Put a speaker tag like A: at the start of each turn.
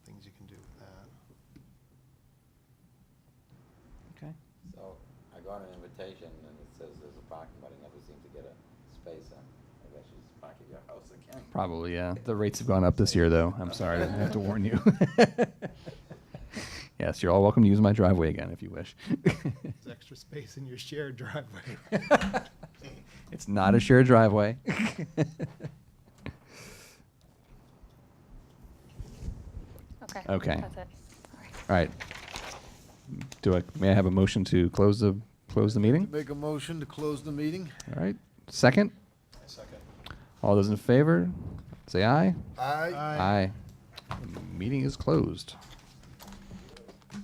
A: Okay.
B: So I got an invitation and it says there's a parking, but I never seem to get a space. uh, Maybe I should just park at your house again.
A: Probably, yeah. The rates have gone up this year, though. I'm sorry, I have to warn you. yes, you're all welcome to use my driveway again if you wish.
C: It's extra space in your shared driveway.
A: it's not a shared driveway.
D: Okay.
A: Okay.
D: That's it.
A: all right. Do I may I have a motion to close the close the meeting?
E: Make a motion to close the meeting?
A: All right. Second.
C: Second.
A: All those in favor, say aye.
E: Aye.
A: Aye. Meeting is closed.